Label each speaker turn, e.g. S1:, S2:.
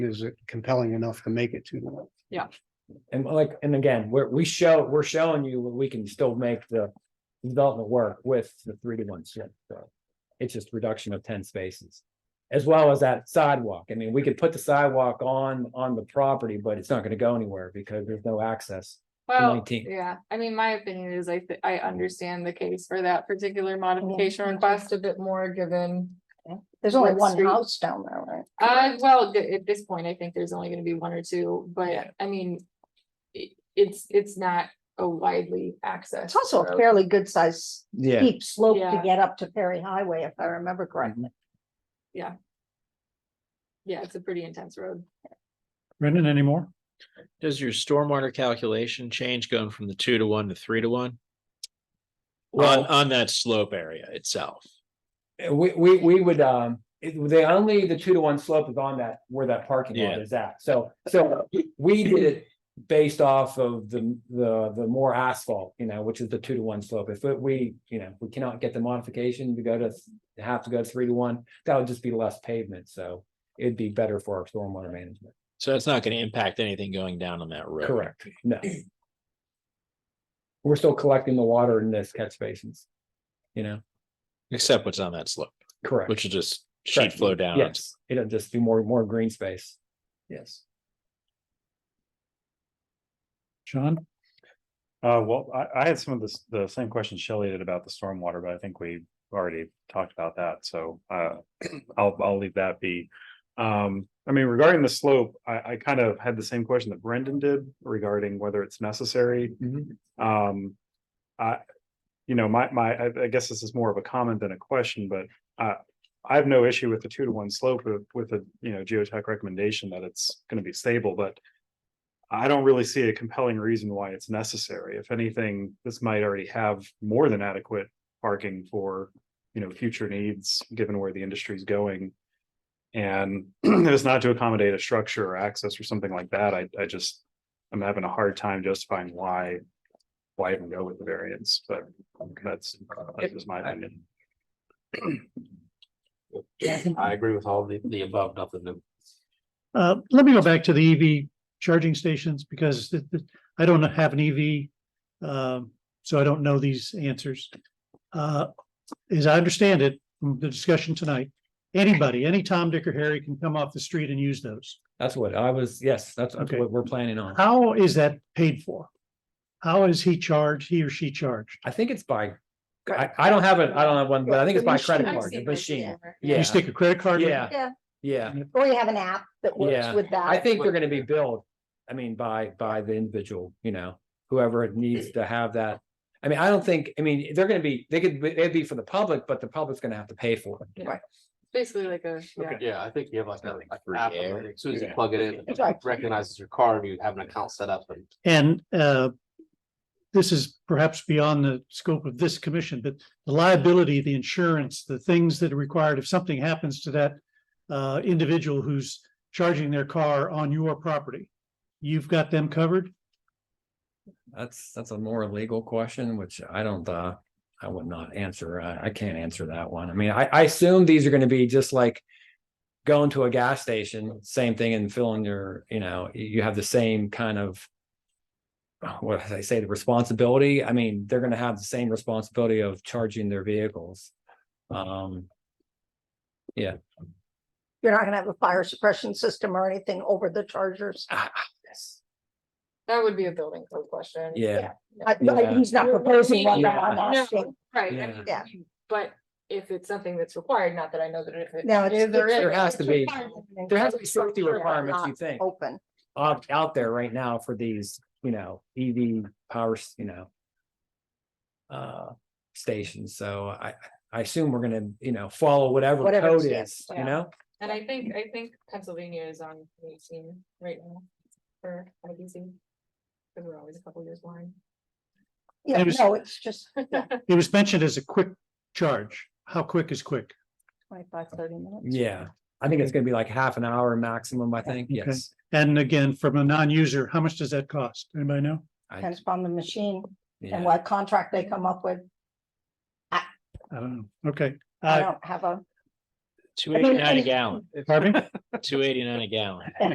S1: is it compelling enough to make it to the one?
S2: And like, and again, we're, we show, we're showing you where we can still make the development work with the three to one shift, so. It's just reduction of ten spaces. As well as that sidewalk. I mean, we could put the sidewalk on, on the property, but it's not gonna go anywhere because there's no access.
S3: Well,
S2: 19th.
S3: yeah, I mean, my opinion is I, thi- I understand the case for that particular modification request a bit more given.
S4: There's only
S3: What
S4: one
S3: street?
S4: house down there, right?
S3: Uh, well, th- at this point, I think there's only gonna be one or two,
S4: Yeah.
S3: but I mean. i- it's, it's not a widely accessed.
S4: It's also a
S3: road.
S4: fairly good sized
S2: Yeah.
S4: steep slope to
S3: Yeah.
S4: get up to Perry Highway, if I remember correctly.
S3: Yeah, it's a pretty intense road.
S5: Brendan anymore?
S6: Does your stormwater calculation change going from the two to one to three to one? On,
S2: Well-
S6: on that slope area itself.
S2: We, we, we would, um, it, the only, the two to one slope is on that, where that parking lot
S6: Yeah.
S2: is at, so, so we did it. Based off of the, the, the more asphalt, you know, which is the two to one slope, if it- we, you know, we cannot get the modification to go to. Have to go to three to one, that would just be less pavement, so it'd be better for our stormwater management,
S6: So that's not going to impact anything going down on that road.
S2: correct, no. We're still collecting the water in this catch basins, you know,
S6: Except what's on that slope,
S2: correct.
S6: which is just sheet
S2: Correct.
S6: flow down.
S2: Yes, it'll just do more, more green space. Yes.
S5: Sean?
S7: Uh, well, I, I had some of this, the same question Shelley did about the stormwater, but I think we already talked about that, so, uh, I'll, I'll leave that be. Um, I mean, regarding the slope, I, I kind of had the same question that Brendan did regarding whether it's necessary. Um, I, you know, my, my, I, I guess this is more of a comment than a question, but, uh, I have no issue with the two to one slope with, with a, you know, geotech recommendation that it's gonna be stable, but I don't really see a compelling reason why it's necessary. If anything, this might already have more than adequate parking for, you know, future needs, given where the industry is going. And if it's not to accommodate a structure or access or something like that, I, I just, I'm having a hard time justifying why, why even go with the variance, but that's, that's just my opinion.
S8: I agree with all the, the above, nothing new.
S5: Uh, let me go back to the EV charging stations because th- th- I don't have an EV. Um, so I don't know these answers. Uh, as I understand it, from the discussion tonight, anybody, any Tom, Dick or Harry can come off the street and use those.
S2: That's what I was, yes, that's that's
S5: Okay.
S2: what we're planning on.
S5: How is that paid for? How is he charged, he or she charged?
S2: I think it's by, I, I don't have it, I don't have one, but I think it's by credit
S4: Machine.
S3: I've
S2: card, the
S3: seen this
S2: machine.
S3: before.
S2: Yeah,
S5: You stick a credit card? in?
S2: yeah,
S4: Yeah.
S2: yeah.
S4: Or you have an app that works
S2: Mm-hmm. Yeah.
S4: with that.
S2: I think they're gonna be billed, I mean, by, by the individual, you know, whoever needs to have that. I mean, I don't think, I mean, they're gonna be, they could, be- they'd be for the public, but the public's gonna have to pay for it.
S3: Basically like a, yeah.
S8: Yeah, I think you have like a,
S6: Nothing
S8: like
S6: free
S8: app,
S6: air.
S8: like, as soon as you
S6: Yeah.
S8: plug it in,
S4: That's right.
S8: it recognizes your car and you have an account set up and.
S5: And uh, this is perhaps beyond the scope of this commission, but the liability, the insurance, the things that are required, if something happens to that uh, individual who's charging their car on your property, you've got them covered?
S2: That's, that's a more legal question, which I don't, uh, I would not answer. I, I can't answer that one. I mean, I, I assume these are gonna be just like going to a gas station, same thing and filling your, you know, y- you have the same kind of what did I say, the responsibility. I mean, they're gonna have the same responsibility of charging their vehicles. Um,
S4: You're not gonna have a fire suppression system or anything over the chargers.
S2: ah, ah, yes.
S3: That would be a building code question.
S2: yeah.
S4: I-
S2: Yeah.
S4: I- He's not proposing one that
S2: Yeah.
S4: I'm asking.
S3: Right, I
S2: Yeah.
S3: mean,
S4: Yeah.
S3: but if if it's something that's required, not that I know that if it.
S4: No, it's.
S3: if there
S4: it's-
S3: is-
S2: There has to be-
S4: it's-
S2: there has to be safety
S4: Structure
S2: requirements,
S4: not
S2: you think.
S4: Open.
S2: out, out there right now for these, you know, E EV powers, you know. Uh, stations, so I, I assume we're gonna, you know, follow whatever
S4: Whatever
S2: code
S4: stands,
S2: is,
S3: yeah.
S2: you know?
S3: And I think, I think Pennsylvania is on eighteen right now for IBC. Cause we're always a couple years behind.
S4: Yeah,
S5: It was-
S4: no, it's just
S5: It was mentioned as a quick charge. How quick is quick?
S4: twenty-five, thirty minutes.
S2: Yeah, I think it's gonna be like half an hour maximum, I think,
S5: Okay.
S2: yes.
S5: And again, from a non-user, how much does that cost? Anybody know?
S2: I,
S4: Depends upon the machine and
S2: yeah,
S4: what contract they come up with.
S5: I don't know. Okay.
S4: I
S5: Uh,
S4: don't have a.
S6: Two eighty-nine a gallon,
S5: Harvey?
S6: two eighty-nine a gallon.